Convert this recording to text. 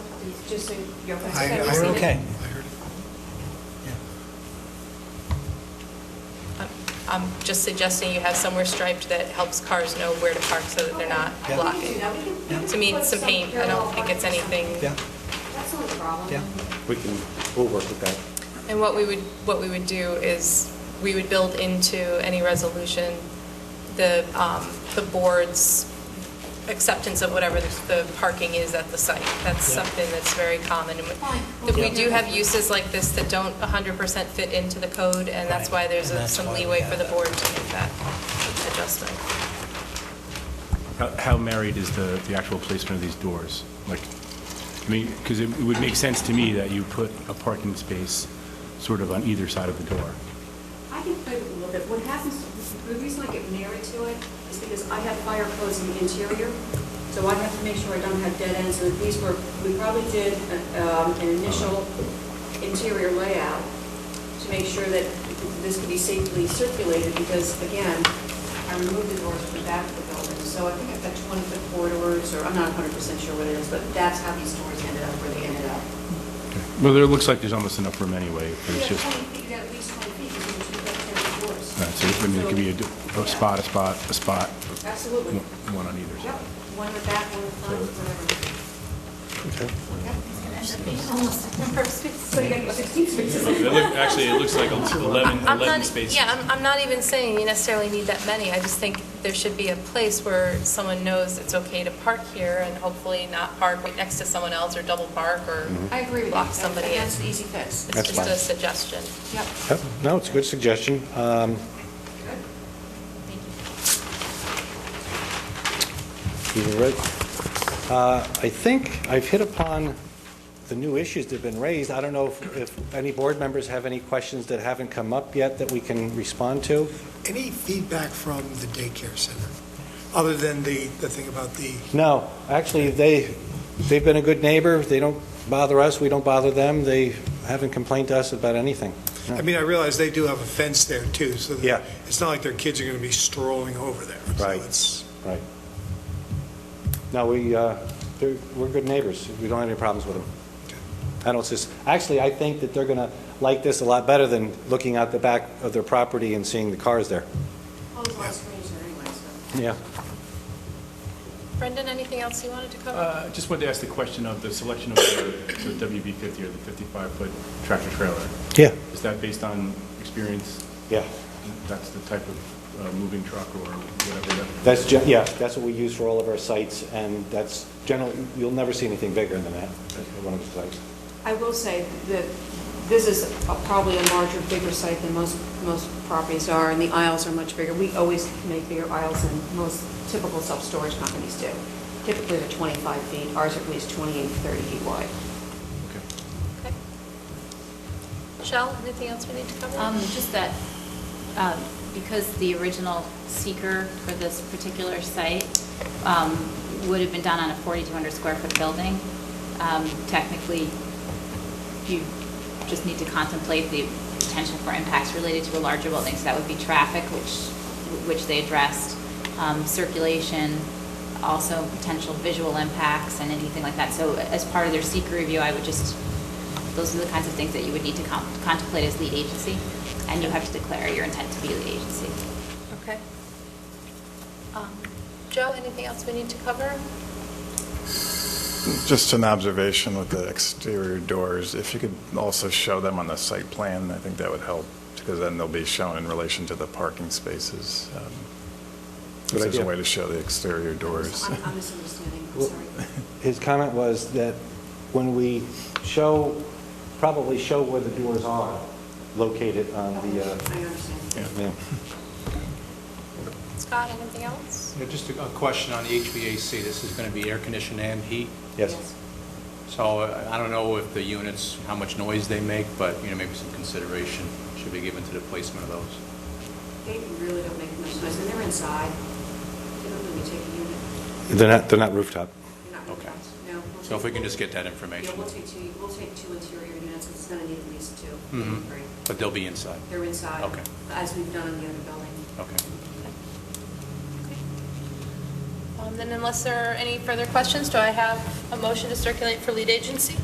just so you're okay. I- So I we're heard We're it. seated. okay. I heard it. I'm- I'm just suggesting you have somewhere striped that helps cars know where to park so that they're not Yeah. blocking. To me, it's some paint, I don't think it's anything. Yeah, That's not a problem. yeah. We can, we'll work with that. And what we would, what we would do is, we would build into any resolution the, um, the board's acceptance of whatever the- the parking is at the site. That's Yeah. something that's very common. And Fine. If we Yeah. do have uses like this that don't 100% fit into the code, and that's Right. why there's And a- that's some why we leeway have for the that. board to make that adjustment. How- How married is the, the actual placement of these doors? Like, I mean, because it it would make sense to me that you put a parking space sort of on either side of the door. I can play with it a little bit. What happens, the reason I get married to it is because I have fire codes in the interior, so I have to make sure I don't have dead ends. So these were, we probably did um, an initial interior layout to make sure that this could be safely circulated, because again, I removed the doors from the back of the building. So I think I've got 20-foot corridors, or I'm not 100% sure what it is, but that's how these doors ended up where they ended up. Well, there looks like there's almost enough room anyway. You It's got just, 20 feet, you got at least 20 feet, because you've got 10 doors. all right, so I mean, it could be a d- a spot, a spot, a spot, Absolutely. one one on either Yep, side. one in the back, one in the front, whatever. So you got 16 spaces. It look- Actually, it looks like 11, I'm 11 not, e-, spaces. yeah, I'm, I'm not even saying you necessarily need that many, I just think there should be a place where someone knows it's okay to park here and hopefully not park right next to someone else or double park or Mm-hmm. I agree with you. block somebody in. That's the easy fix. It's That's just a fine. suggestion. Yep. Yep, No, it's a good suggestion. Um, you were right. Uh, I think I've hit upon the new issues that have been raised. I don't know if- if any board members have any questions that haven't come up yet that we can respond to. Any feedback from the daycare center, other than the, the thing about the, No, actually, they, they've been a good neighbor. They don't bother us, we don't bother them. They haven't complained to us about anything. I mean, I realize they do have a fence there too, so that- Yeah. it's not like their kids are going to be strolling over there. So Right. it's- Right. No, we, uh, they're- we're good neighbors. We don't have any problems with them. I don't, sus- actually, I think that they're going to like this a lot better than looking out the back of their property and seeing the cars there. All those light screens are anyway, so. Yeah. Brendan, anything else you wanted to cover? Uh, Just wanted to ask the question of the selection of the the WB50 or the 55-foot tractor trailer. Yeah. Is that based on experience? Yeah. That's the type of uh, moving truck or whatever that... That's, gen- yeah, that's what we use for all of our sites, and that's generally, you'll never see anything bigger than that, at one of the sites. I will say that this is a- probably a larger, bigger site than most, most properties are, and the aisles are much bigger. We always make bigger aisles than most typical self-storage companies do. Typically, they're 25 feet, ours are at least 28, 30 feet wide. Okay. Okay. Michelle, anything else we need to cover? Um, Just that, um, because the original seeker for this particular site um, would have been done on a 4,200 square foot building, um, technically, you just need to contemplate the potential for impacts related to a larger building. So that would be traffic, which, which they addressed, um, circulation, also potential visual impacts and anything like that. So as part of their seeker review, I would just those are the kinds of things that you would need to con- contemplate as lead agency, and you have to declare your intent to be lead agency. Okay. Um, Joe, anything else we need to cover? Just an observation with the exterior doors, if you could also show them on the site plan, I think that would help, because then they'll be shown in relation to the parking spaces. um, If Good there's a idea. way to show the exterior doors. I'm I'm misunderstanding, I'm Well- sorry. His comment was that when we show, probably show where the doors are located on the, I uh, understand. yeah. Scott, anything else? Yeah, Just a a question on the HVAC. This is going to be air conditioned and heat, yes. so uh, I don't know if the units, how much noise they make, but, you know, maybe some consideration should be given to the placement of those. They really don't make much noise, and they're inside. They don't really take a unit. They're not, they're not rooftop. They're not really Okay. fast. No. we'll So if take- we can just get that Yeah, information. we'll take two, we'll take two interior units, it's gonna need at least two, maybe Mhm. three. But they'll be inside. Mm-hmm. They're inside. Okay. As we've done in the other building. Okay. Um, Then unless there are any further questions, do I have a motion to circulate for lead agency?